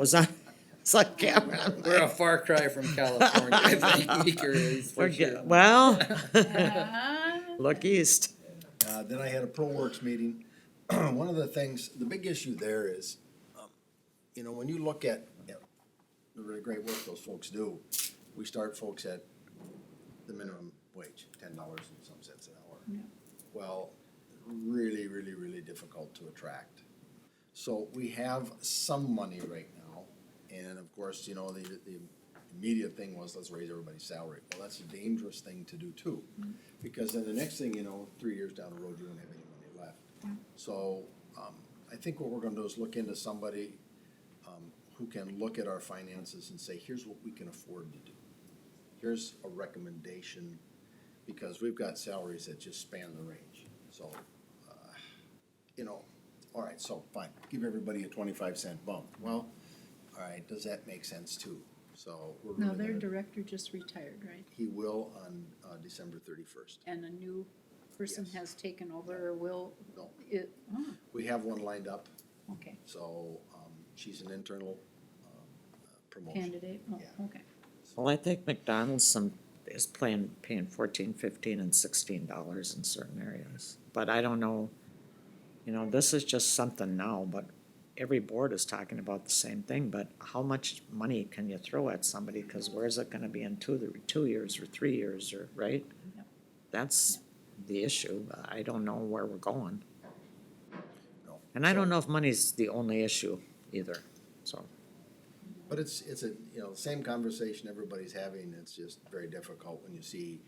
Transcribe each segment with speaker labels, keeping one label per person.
Speaker 1: was on, it's like Cameron, I'm
Speaker 2: We're a
Speaker 1: like,
Speaker 2: far cry from California, I think, or at least for
Speaker 1: we're
Speaker 2: sure.
Speaker 1: get- well, look east.
Speaker 3: Uh, then I had a ProWorks meeting. One of the things, the big issue there is, um, you know, when you look at, at the really great work those folks do, we start folks at the minimum wage, ten dollars and some cents an hour. Well, really, really, really difficult to attract. So we have some money right now, and of course, you know, the, the immediate thing was, let's raise everybody's salary. Well, that's a dangerous thing to do too, because then the next thing you know, three years down the road, you won't have any money left. So, um, I think what we're gonna do is look into somebody, um, who can look at our finances and say, here's what we can afford to do. Here's a recommendation, because we've got salaries that just span the range, so, uh, you know, all right, so fine, give everybody a twenty-five cent bump. Well, all right, does that make sense too? So we're
Speaker 4: No,
Speaker 3: really
Speaker 4: their
Speaker 3: gonna-
Speaker 4: director just retired, right?
Speaker 3: he will on, uh, December thirty-first.
Speaker 4: And a new person
Speaker 3: Yes.
Speaker 4: has taken over or will,
Speaker 3: No.
Speaker 4: it, oh,
Speaker 3: We have one lined up,
Speaker 4: okay,
Speaker 3: so, um, she's an internal, um, uh, promotion.
Speaker 4: candidate, oh,
Speaker 3: Yeah.
Speaker 4: okay.
Speaker 1: Well, I think McDonald's some, is playing, paying fourteen, fifteen and sixteen dollars in certain areas. But I don't know, you know, this is just something now, but every board is talking about the same thing, but how much money can you throw at somebody? Cause where's it gonna be in two, two years or three years or, right?
Speaker 4: Yep.
Speaker 1: That's the issue. I don't know where we're going.
Speaker 3: No.
Speaker 1: And I
Speaker 3: So-
Speaker 1: don't know if money's the only issue either, so.
Speaker 3: But it's, it's a, you know, same conversation everybody's having, it's just very difficult when you see,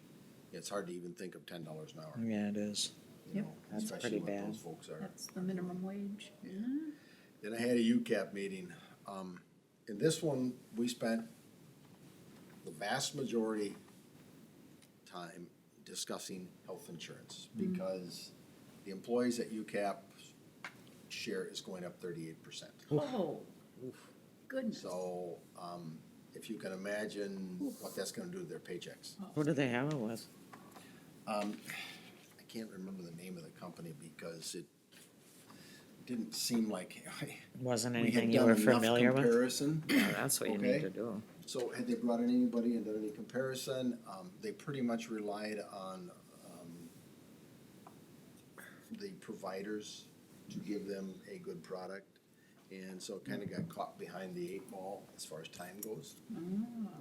Speaker 3: it's hard to even think of ten dollars an hour,
Speaker 1: Yeah, it is.
Speaker 3: you
Speaker 4: Yep.
Speaker 3: know,
Speaker 1: That's
Speaker 3: especially
Speaker 1: pretty
Speaker 3: what
Speaker 1: bad.
Speaker 3: those folks are.
Speaker 4: That's the minimum wage.
Speaker 3: Yeah. Then I had a UCAP meeting. Um, in this one, we spent the vast majority time discussing health insurance
Speaker 1: Mm-hmm.
Speaker 3: because the employees at UCAP share is going up thirty-eight percent.
Speaker 4: Oh, goodness.
Speaker 3: So, um, if you can imagine what that's gonna do to their paychecks.
Speaker 4: Oh,
Speaker 1: Who do they have it with?
Speaker 3: Um, I can't remember the name of the company because it didn't seem like
Speaker 1: Wasn't
Speaker 3: we had
Speaker 1: anything you
Speaker 3: done
Speaker 1: were
Speaker 3: enough
Speaker 1: familiar with?
Speaker 3: comparison.
Speaker 1: Yeah,
Speaker 5: Oh,
Speaker 1: that's what you
Speaker 3: Okay.
Speaker 1: need to do.
Speaker 3: So had they brought in anybody and done any comparison? Um, they pretty much relied on, um, the providers to give them a good product. And so kinda got caught behind the eight ball as far as time goes.
Speaker 4: Ah,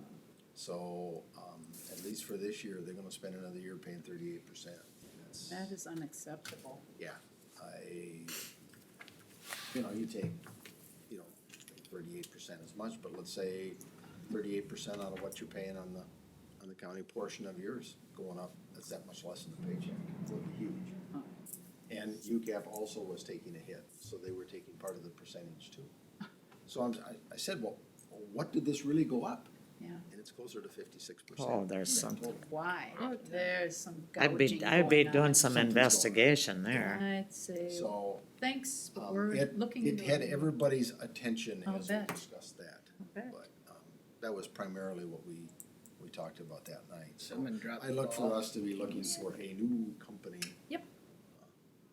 Speaker 3: So, um, at least for this year, they're gonna spend another year paying thirty-eight percent.
Speaker 4: That is unacceptable.
Speaker 3: Yeah, I, you know, you take, you know, thirty-eight percent as much, but let's say thirty-eight percent out of what you're paying on the, on the county portion of yours going up, that's that much less in the paycheck, it would be huge.
Speaker 4: Oh,
Speaker 3: And UCAP also was taking a hit, so they were taking part of the percentage too. So I'm, I, I said, well, what did this really go up?
Speaker 4: Yeah,
Speaker 3: And it's closer to fifty-six percent.
Speaker 1: Oh, there's something.
Speaker 4: why? There's some
Speaker 1: I'd
Speaker 4: gouging
Speaker 1: be, I'd be
Speaker 4: going
Speaker 1: doing
Speaker 4: on.
Speaker 1: some
Speaker 3: Something's going on.
Speaker 1: investigation there.
Speaker 4: I'd say,
Speaker 3: So,
Speaker 4: thanks, but
Speaker 3: um,
Speaker 4: we're
Speaker 3: it,
Speaker 4: looking.
Speaker 3: it
Speaker 4: into
Speaker 3: had everybody's attention
Speaker 4: I'll
Speaker 3: as we
Speaker 4: bet.
Speaker 3: discussed that.
Speaker 4: I bet.
Speaker 3: But um, that was primarily what we, we talked about that night. So
Speaker 2: Someone dropped
Speaker 3: I
Speaker 2: the
Speaker 3: look for
Speaker 2: ball.
Speaker 3: us to be looking for a new company.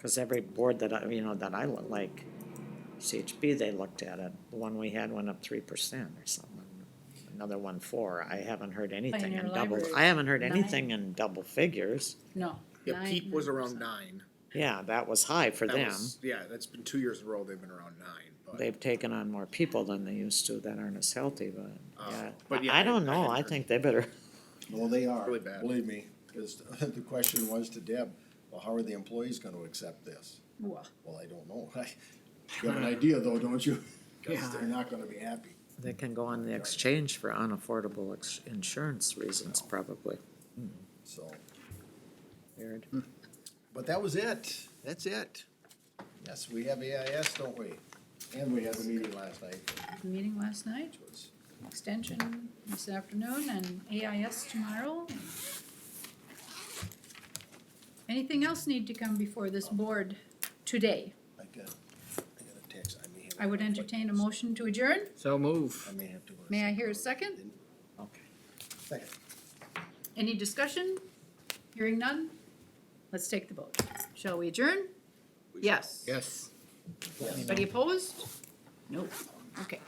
Speaker 1: Cause every board that I, you know, that I look like, CHB, they looked at it. The one we had went up three percent or something. Another one four. I haven't heard anything
Speaker 4: Pioneer
Speaker 1: in double,
Speaker 4: Library,
Speaker 1: I haven't heard
Speaker 4: nine.
Speaker 1: anything in double figures.
Speaker 4: No.
Speaker 5: Yeah, peak was around
Speaker 4: 9%.
Speaker 5: nine.
Speaker 1: Yeah, that was high for
Speaker 5: That
Speaker 1: them.
Speaker 5: was- Yeah, that's been two years in a row they've been around nine, but,
Speaker 1: they've taken on more people than they used to that aren't as healthy, but,
Speaker 5: Oh,
Speaker 1: yeah.
Speaker 5: but yeah,
Speaker 1: I
Speaker 5: I-
Speaker 1: don't
Speaker 5: I
Speaker 1: know,
Speaker 5: hadn't
Speaker 1: I
Speaker 5: heard
Speaker 1: think they better,
Speaker 3: Well, they are.
Speaker 5: Really bad.
Speaker 3: Believe me, because the question was to Deb, well, how are the employees gonna accept this?
Speaker 4: Whoa.
Speaker 3: Well, I don't know. You have an idea though, don't you? Because
Speaker 1: Yeah.
Speaker 3: they're not gonna be happy.
Speaker 1: they can go on the exchange for unaffordable ex- insurance reasons probably.
Speaker 3: So,
Speaker 1: Weird.
Speaker 3: but that was it. That's it. Yes, we have AIS, don't we? And we had the meeting last night,
Speaker 4: Meeting last night,
Speaker 3: which was
Speaker 4: extension this afternoon and AIS tomorrow. Anything else need to come before this board today?
Speaker 3: I got, I got a text, I may have.
Speaker 4: I would entertain a motion to adjourn.
Speaker 2: So move.
Speaker 3: I may have to. go to
Speaker 4: May I hear a second?
Speaker 1: Okay.
Speaker 3: Second.
Speaker 4: Any discussion? Hearing none? Let's take the vote. Shall we adjourn? Yes.
Speaker 2: Yes.
Speaker 4: Anybody opposed? No. Okay.